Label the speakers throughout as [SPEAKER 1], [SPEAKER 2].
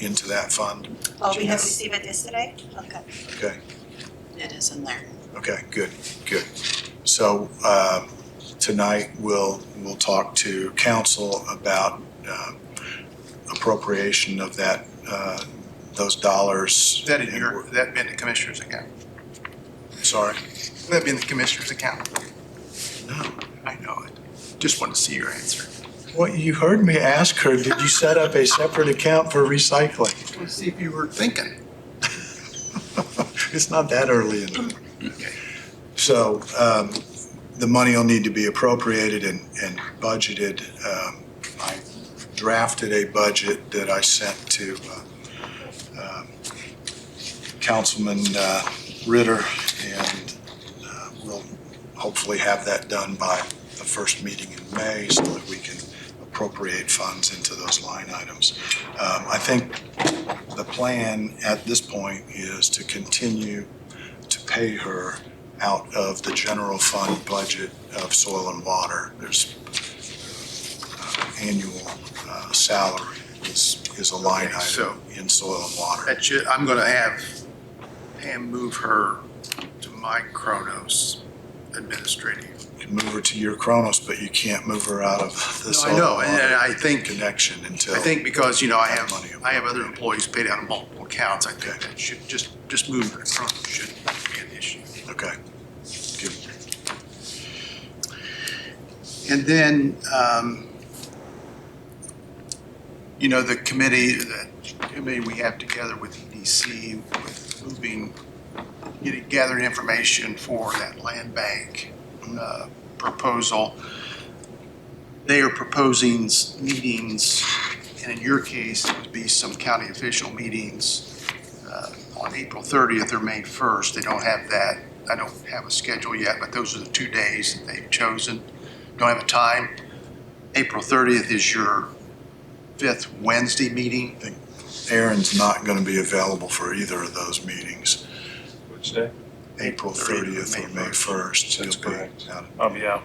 [SPEAKER 1] into that fund?
[SPEAKER 2] Oh, we have
[SPEAKER 1] Yes.
[SPEAKER 2] received it yesterday? Okay.
[SPEAKER 1] Okay,
[SPEAKER 3] It is in there.
[SPEAKER 1] okay, good, good. So, um, tonight, we'll, we'll talk to council about, um, appropriation of that, uh, those dollars.
[SPEAKER 4] That in your, that be in the commissioner's account.
[SPEAKER 1] Sorry,
[SPEAKER 4] That be in the commissioner's account.
[SPEAKER 1] no.
[SPEAKER 4] I know it. Just wanted to see your answer.
[SPEAKER 1] Well, you heard me ask her, did you set up a separate account for recycling?
[SPEAKER 4] Just wanted to see if you were thinking.
[SPEAKER 1] It's not that early in the morning. So um, the money will need to be appropriated and and budgeted. Um, I drafted a budget that I sent to uh, um, Councilman uh, Ritter, and uh, we'll hopefully have that done by the first meeting in May so that we can appropriate funds into those line items. Um, I think the plan at this point is to continue to pay her out of the general fund budget of soil and water. There's uh, annual uh, salary is, is a line
[SPEAKER 4] Okay, so-
[SPEAKER 1] item in soil and water.
[SPEAKER 4] That should, I'm gonna have Pam move her to my Kronos administrative.
[SPEAKER 1] You can move her to your Kronos, but you can't move her out of the
[SPEAKER 4] No,
[SPEAKER 1] soil
[SPEAKER 4] I
[SPEAKER 1] and
[SPEAKER 4] know, and and
[SPEAKER 1] water
[SPEAKER 4] I think,
[SPEAKER 1] connection until.
[SPEAKER 4] I think because, you know, I have, I have other employees paid out of multiple accounts, I think that should, just, just move her to Kronos shouldn't be an issue.
[SPEAKER 1] Okay. Good.
[SPEAKER 4] And then, um, you know, the committee, the committee we have together with EDC, with moving, getting, gathering information for that land bank uh, proposal. They are proposing s- meetings, and in your case, it would be some county official meetings uh, on April 30th or May 1st. They don't have that, I don't have a schedule yet, but those are the two days that they've chosen don't have a time. April 30th is your fifth Wednesday meeting.
[SPEAKER 1] Aaron's not going to be available for either of those meetings,
[SPEAKER 5] Which day?
[SPEAKER 1] April 30th or May 1st.
[SPEAKER 5] That's
[SPEAKER 1] He'll be
[SPEAKER 5] correct.
[SPEAKER 1] out of
[SPEAKER 5] I'll be out.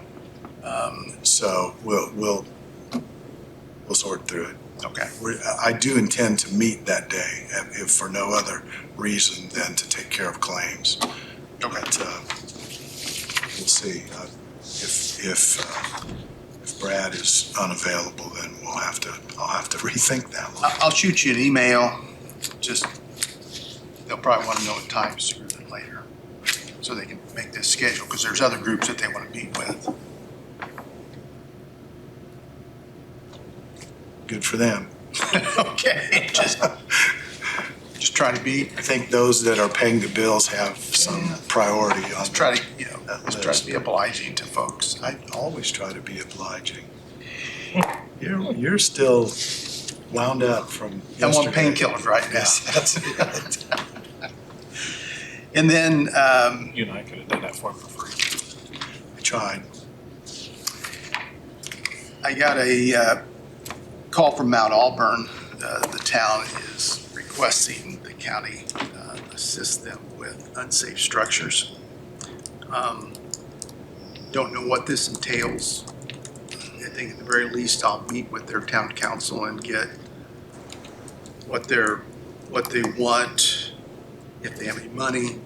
[SPEAKER 4] Um,
[SPEAKER 1] So we'll, we'll, we'll sort through it.
[SPEAKER 4] Okay.
[SPEAKER 1] We're- I do intend to meet that day, if if for no other reason than to take care of claims. But uh, we'll see. Uh, If, if, uh, if Brad is unavailable, then we'll have to, I'll have to rethink that one.
[SPEAKER 4] I- I'll shoot you an email, just, they'll probably want to know what time sooner than later, so they can make this schedule, because there's other groups that they want to meet with.
[SPEAKER 1] Good for them.
[SPEAKER 4] Okay. Just just trying to be,
[SPEAKER 1] I think those that are paying the bills have some priority on.
[SPEAKER 4] just try to, you know, just try to be obliging to folks.
[SPEAKER 1] I always try to be obliging. You're, you're still wound up from
[SPEAKER 4] I'm on
[SPEAKER 1] yesterday.
[SPEAKER 4] painkillers right
[SPEAKER 1] Yes,
[SPEAKER 4] now.
[SPEAKER 1] that's it.
[SPEAKER 4] And then, um,
[SPEAKER 5] You and I could have done that for him for free.
[SPEAKER 1] I tried.
[SPEAKER 4] I got a uh, call from Mount Auburn. Uh, The town is requesting the county uh, assist them with unsafe structures. Um, Don't know what this entails. I think at the very least, I'll meet with their town council and get what they're, what they want, if they have any money,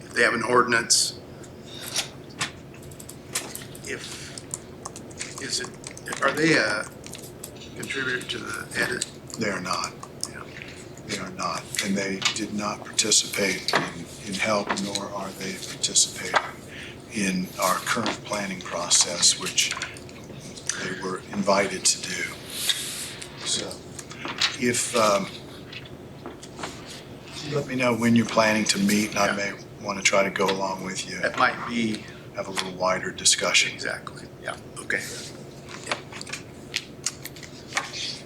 [SPEAKER 4] if they have an ordinance. If, is it are they a contributor to the edit?
[SPEAKER 1] They are not.
[SPEAKER 4] Yeah.
[SPEAKER 1] They are not. And they did not participate in, in help, nor are they participating in our current planning process, which they were invited to do. So if, um, let me know when you're planning to meet, and I may want to try to go along with you,
[SPEAKER 4] That might be,
[SPEAKER 1] have a little wider discussion.
[SPEAKER 4] exactly, yeah, okay.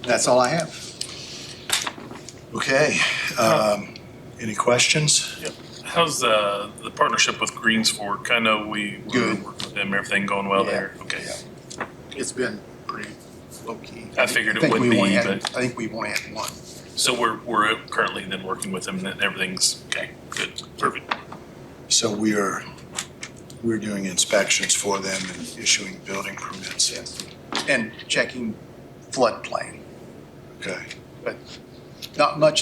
[SPEAKER 4] That's all I have.
[SPEAKER 1] Okay. um, Any questions?
[SPEAKER 5] How's uh, the partnership with Greens Fork? I know we were
[SPEAKER 4] Good.
[SPEAKER 5] working with them, everything going well
[SPEAKER 4] Yeah.
[SPEAKER 5] there. Okay.
[SPEAKER 4] Yeah. It's been pretty low-key.
[SPEAKER 5] I figured it
[SPEAKER 4] think
[SPEAKER 5] would
[SPEAKER 4] we
[SPEAKER 5] be,
[SPEAKER 4] only had-
[SPEAKER 5] but-
[SPEAKER 4] I think we've only had one.
[SPEAKER 5] So we're, we're currently then working with them and everything's okay. Good. Perfect.
[SPEAKER 1] So we are, we're doing inspections for them and issuing building permits.
[SPEAKER 4] And checking floodplain,
[SPEAKER 1] Okay.
[SPEAKER 4] but not much